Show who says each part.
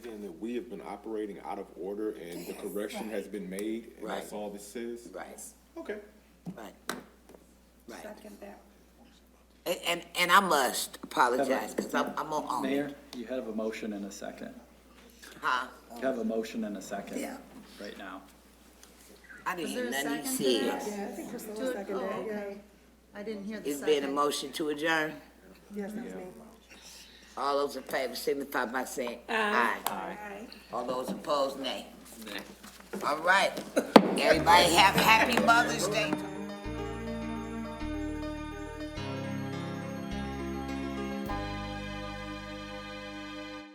Speaker 1: understand that we have been operating out of order and the correction has been made, and that's
Speaker 2: Right.
Speaker 1: all this is?
Speaker 2: Right,
Speaker 1: Okay.
Speaker 2: right, right.
Speaker 3: Second that.
Speaker 2: And, and, and I must apologize, because I'm, I'm on, on it.
Speaker 4: Mayor, you have a motion and a second.
Speaker 2: Huh?
Speaker 4: You have a motion and a second.
Speaker 2: Yeah.
Speaker 4: Right now.
Speaker 2: I didn't
Speaker 5: Was
Speaker 2: hear
Speaker 5: there a
Speaker 2: nothing
Speaker 5: second
Speaker 2: you
Speaker 5: to
Speaker 2: said.
Speaker 5: that?
Speaker 3: Yeah, I think Priscilla
Speaker 5: Do it-
Speaker 3: seconded
Speaker 5: oh,
Speaker 3: that, yeah.
Speaker 5: okay. I didn't hear the
Speaker 2: It's been a
Speaker 5: second.
Speaker 2: motion to adjourn.
Speaker 3: Yes, that's me.
Speaker 2: All those in favor signify by saying aye.
Speaker 3: Aye.
Speaker 2: All those opposed, nay. All right. Everybody have a happy Mother's Day.